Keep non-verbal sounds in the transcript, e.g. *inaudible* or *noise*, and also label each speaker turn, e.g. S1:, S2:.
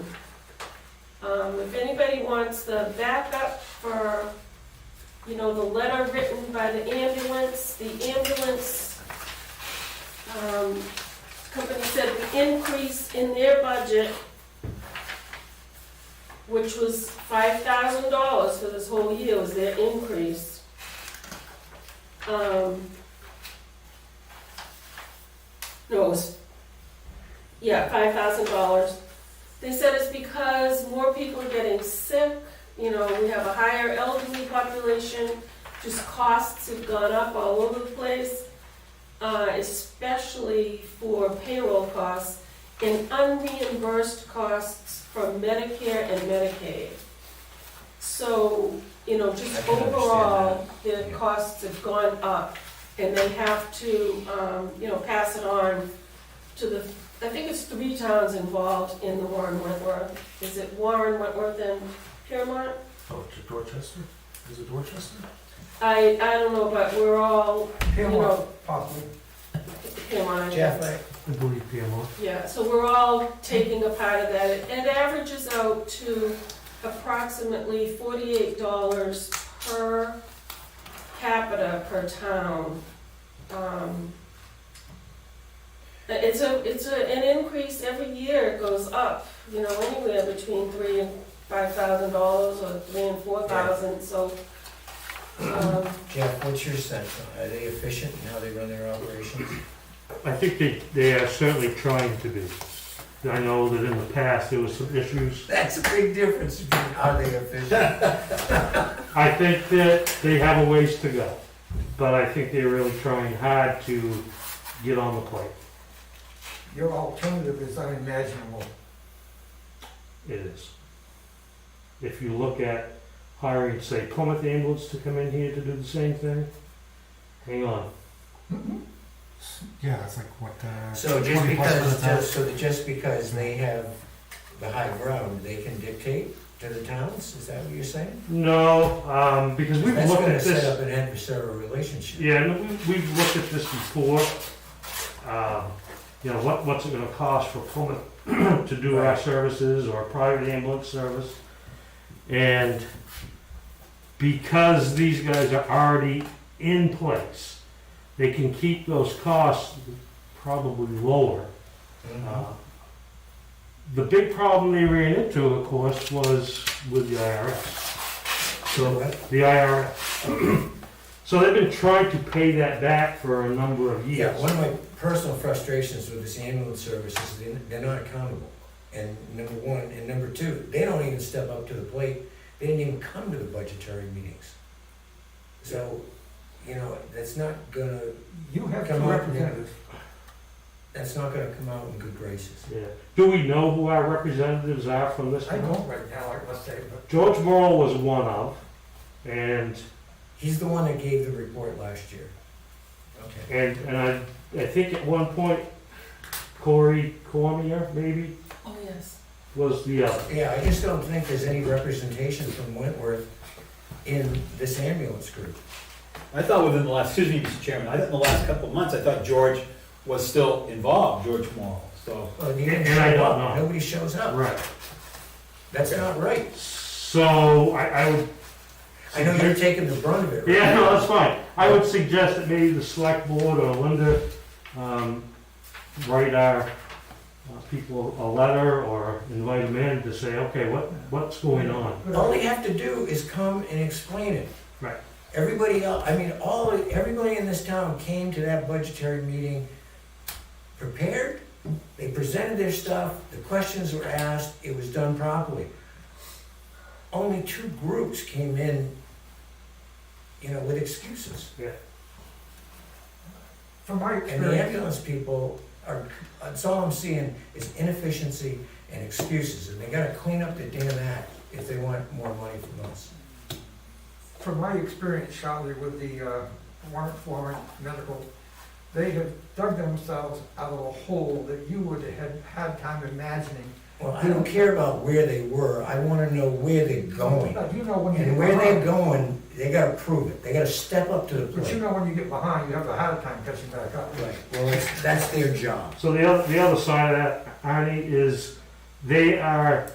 S1: Um, if anybody wants the backup for, you know, the letter written by the ambulance, the ambulance, um, company said the increase in their budget, which was five thousand dollars for this whole year, was their increase. Um, no, it was, yeah, five thousand dollars. They said it's because more people are getting sick, you know, we have a higher elderly population, just costs have gone up all over the place, uh, especially for payroll costs and unreimbursed costs from Medicare and Medicaid. So, you know,
S2: I
S1: just
S2: can understand
S1: overall, their
S2: Yeah.
S1: costs have gone up and they have to, um, you know, pass it on to the, I think it's three towns involved in the Warren Wentworth. Is it Warren Wentworth and Piermont?
S2: Oh, to Dorchester? Is it Dorchester?
S1: I, I don't know, but we're all, you know,
S3: possibly.
S1: Piermont. I guess.
S2: I believe PMO.
S1: Yeah, so we're all taking a part of that. It it averages out to approximately forty-eight dollars per capita per town. Um, It's a, it's a, an increase every year, it goes up, you know, anywhere between three and five thousand dollars or three and four thousand, so. um,
S3: Jeff, what's your sense? Are they efficient in how they run their operations?
S4: I think they, they are certainly trying to be. I know that in the past, there was some issues.
S3: That's a big difference between are they efficient?
S4: I think that they have a ways to go, but I think they're really trying hard to get on the plate.
S5: Your alternative is unimaginable.
S4: It is. If you look at hiring, say, Plymouth ambulance to come in here to do the same thing, hang on.
S2: Yeah, it's like what, uh.
S3: So just
S2: 20 bucks for
S3: because,
S2: the time.
S3: just- so that just because they have the high ground, they can dictate to the towns? Is that what you're saying?
S4: No, um, because we've
S3: That's
S4: looked
S3: gonna
S4: at
S3: set
S4: this,
S3: up an adversarial relationship.
S4: yeah, and we- we've looked at this before. Um, You know, what, what's it gonna cost for Plymouth *clears throat* to do our
S3: Right.
S4: services or a private ambulance service? And because these guys are already in place, they can keep those costs probably lower
S3: Mhm.
S4: Uh, The big problem they ran into, of course, was with the IRS.
S3: So
S4: So,
S3: what-
S4: the IRS. *clears throat* So they've been trying to pay that back for a number of
S3: Yeah,
S4: years.
S3: one of my personal frustrations with this ambulance service is they- they're not accountable. And number one, and number two, they don't even step up to the plate. They didn't even come to the budgetary meetings. So, you know, that's not gonna,
S5: You have two
S3: Come on.
S5: representatives.
S3: that's not gonna come out in good graces.
S4: Yeah. Do we know who our representatives are from this
S5: I
S4: town?
S5: don't right now, I must say, but
S4: George Morrow was one of, and,
S3: He's the one that gave the report last year. Okay.
S4: and, and I, I think at one point Corey Cormier, maybe,
S1: Oh, yes.
S4: was the other.
S3: Yeah, I just don't think there's any representation from Wentworth in this ambulance group.
S6: I thought within the last, excuse me, Mr. Chairman, I thought in the last couple of months, I thought George was still involved, George Morrow, so.
S3: Well, he didn't
S4: And I
S3: show
S4: don't
S3: up.
S4: know.
S3: Nobody shows up.
S4: Right.
S3: That's not right.
S4: So I, I would
S3: I know you're taking the brunt of it. right?
S4: Yeah, no, that's fine. I would suggest that maybe the select board or Linda, um, write our uh, people a letter or invite them in to say, okay, what, what's going on?
S3: All they have to do is come and explain it.
S4: Right.
S3: Everybody else, I mean, all, everybody in this town came to that budgetary meeting prepared. They presented their stuff, the questions were asked, it was done properly. Only two groups came in, you know, with excuses.
S5: from my
S3: And the
S5: experience,
S3: ambulance people are, that's all I'm seeing is inefficiency and excuses. And they gotta clean up the damn act if they want more money from us.
S5: from my experience, Charlie, with the uh, Warren Florence Medical, they have dug themselves out of a hole that you would have had time imagining.
S3: Well, I don't care about where they were, I wanna know where they're going.
S5: But you know when you
S3: And
S5: get
S3: where they're
S5: behind,
S3: going, they gotta prove it, they gotta step up to the
S5: but you
S3: plate.
S5: know when you get behind, you have a hard time catching back up.
S3: Right, well, that's, that's their job.
S4: So the other, the other side of that, Arnie, is they are